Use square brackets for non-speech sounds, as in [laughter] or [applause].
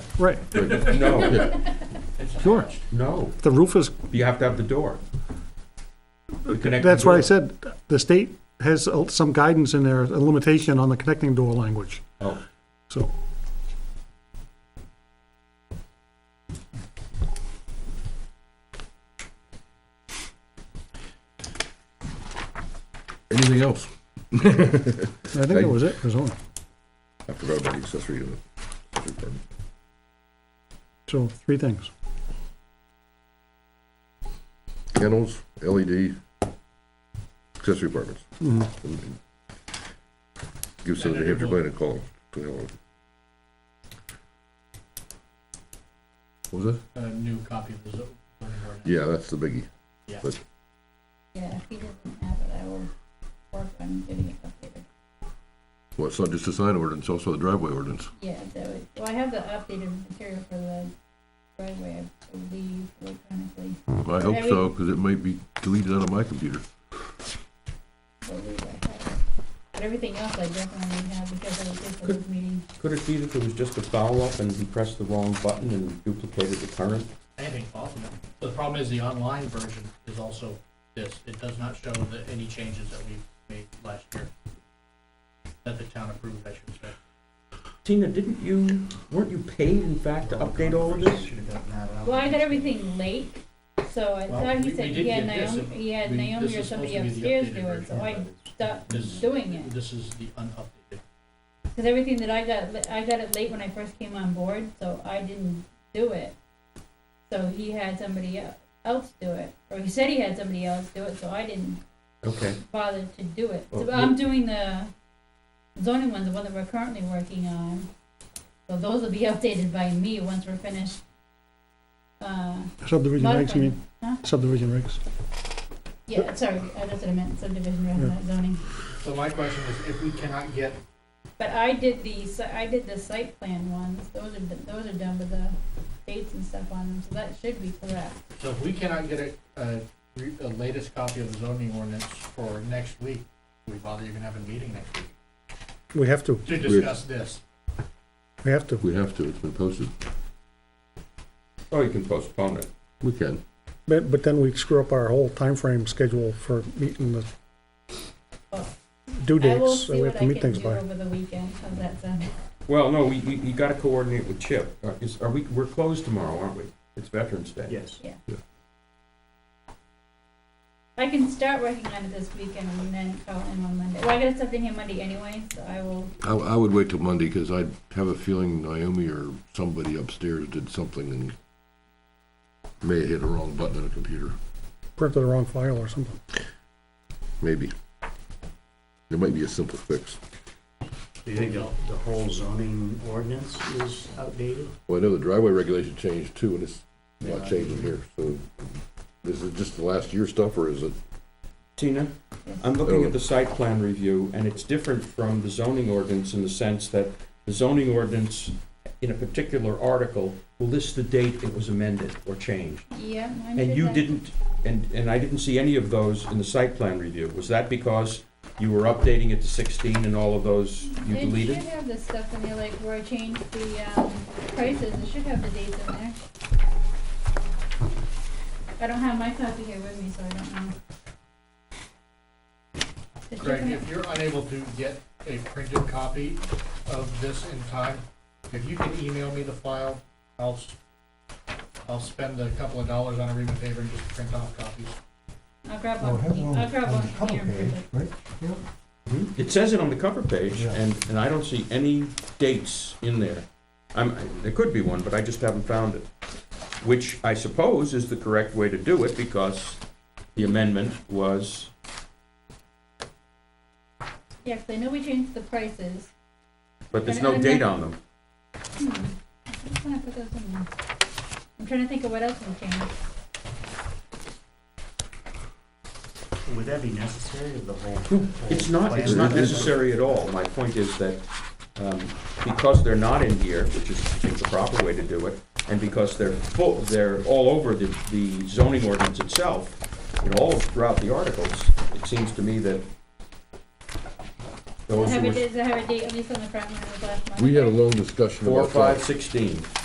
Right, [laughs] No, sure. no, The roof is, you have to have the door. The connecting that's what I door. said, the state has some guidance in there, a limitation on the connecting door language, Oh, so. Anything else? I think that was it, for zoning. I forgot about the accessory unit. Accessory permit. So, three things. Kennels, LED, accessory apartments. Give us the New Hampshire Plan a call. to help. What was that? a new copy of the zo- zoning ordinance. Yeah, that's the biggie. Yeah. But Yeah, if he doesn't have it, I will work on getting it updated. Well, it's not just the sign ordinance, also the driveway ordinance. Yeah, that would, well, I have the updated material for the driveway, I believe, electronically, I hope so, because it might be deleted out of my computer. believe I have it. But everything else I definitely have because I was at the Good. board meeting. could it be that there was just a foul up and he pressed the wrong button and duplicated the current? Anything possible. The problem is the online version is also this. It does not show the, any changes that we made last year. That the town approved, I should say. Tina, didn't you, weren't you paid in fact to update all of this? Well, I got everything late, so I Well, thought we- he we said did he had get this, Naomi, he had We- Naomi this or is supposed somebody to be the upstairs updated do it, so version. I stopped This- doing it. This is the unupdated. Because everything that I got, li- I got it late when I first came on board, so I didn't do it. So he had somebody el- else do it, or he said he had somebody else do it, so I didn't Okay, bother to do it. So Oh, I'm doing the zoning one, the one that we're currently working on. So those will be updated by me once we're finished. Uh, Subdivision regs, you mean, Huh? subdivision regs. yeah, sorry, uh, that's what I meant, subdivision rather than zoning. So my question is, if we cannot get, But I did the, si- I did the site plan ones, those are, d- those are done with the dates and stuff on them, so that should be correct. so if we cannot get a, a, re- a latest copy of the zoning ordinance for next week, we bother even have a meeting next week We have to, to discuss this. we have to. We have to, it's been posted. or you can postpone it. We can. But, but then we screw up our whole time frame schedule for meeting the due Oh. I will dates, so see we what have I to can meet things do by. over the weekend, how's that sound? Well, no, we, we, you gotta coordinate with Chip. Uh, Is, are we, we're closed tomorrow, aren't we? It's Veterans Day. Yes. I can start working on it this weekend and then call him on Monday, well, I got something here Monday anyway, so I will, I, I would wait till Monday, because I have a feeling Naomi or somebody upstairs did something and may have hit a wrong button on a computer, Print the wrong file or something. maybe. There might be a simple fix. Do you think the the whole zoning ordinance is outdated? Well, I know the driveway regulation changed too, and it's not changing here, so is it just the last year stuff, or is it? Tina, I'm looking at the site plan review, and it's different from the zoning ordinance in the sense that the zoning ordinance, in a particular article, will list the date it was amended or changed. yeah, mine should And you have- didn't, and, and I didn't see any of those in the site plan review. Was that because you were updating it to sixteen and all of those you It deleted? should have the stuff in there, like where I changed the, um, prices, it should have the dates in there. I don't have my copy here with me, so I don't know. It should Greg, have- if you're unable to get a printed copy of this in time, if you can email me the file, I'll, s- I'll spend a couple of dollars on a ream and paper and just print off copies. I'll grab Well, it has it one, on I'll grab on one the cover here. and print page, it. right? Mhm. It says it on the cover page, Yeah. and, and I don't see any dates in there. I'm, there could be one, but I just haven't found it. Which I suppose is the correct way to do it, because the amendment was Yeah, 'cause I know we changed the prices. But there's no date on them. Hmm, I'm gonna put those in there. I'm trying to think of what else we changed. Would that be necessary of the whole? It's not, it's not necessary at all. My point is that um, because they're not in here, which is, I think, the proper way to do it, and because they're full, they're all over the the zoning ordinance itself, and all throughout the articles, it seems to me that Does those it who have a, were Oh, does it have a date, at least on the front one, it was last month? We had a long discussion four, about that. five, sixteen.